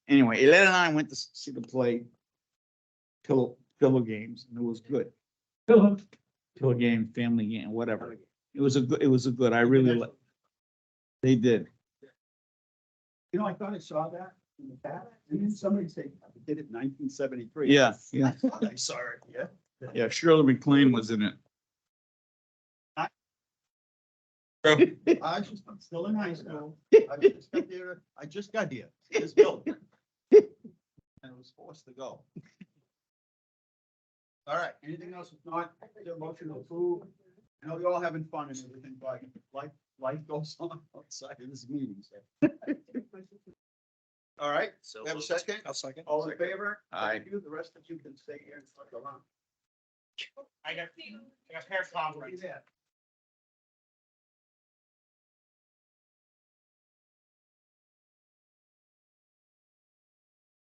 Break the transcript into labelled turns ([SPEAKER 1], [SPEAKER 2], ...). [SPEAKER 1] anyway, Elena and I went to see the play pillow, pillow games and it was good.
[SPEAKER 2] Philip,
[SPEAKER 1] Pillow game, family game, whatever. It was a, good. it was a good, I really, li- they did.
[SPEAKER 2] you know, I thought I saw that in the back, and then somebody said, I did it in nineteen seventy-three.
[SPEAKER 1] Yeah, yeah,
[SPEAKER 2] I saw it, yeah.
[SPEAKER 1] yeah. Shirley McLean was in it.
[SPEAKER 2] I just, I'm still in high school. I just got here, I just got here, this building. And I was forced to go. All right, anything else? If not, the motion to approve. I know you're all having fun and everything, but life, life goes on outside of this meeting. so. All right,
[SPEAKER 3] So.
[SPEAKER 2] have a second?
[SPEAKER 3] I'll second.
[SPEAKER 2] all in favor?
[SPEAKER 1] Aye.
[SPEAKER 2] Thank You, the rest of you can stay here and fuck around.
[SPEAKER 4] I got, I got hair problems.
[SPEAKER 2] Yeah.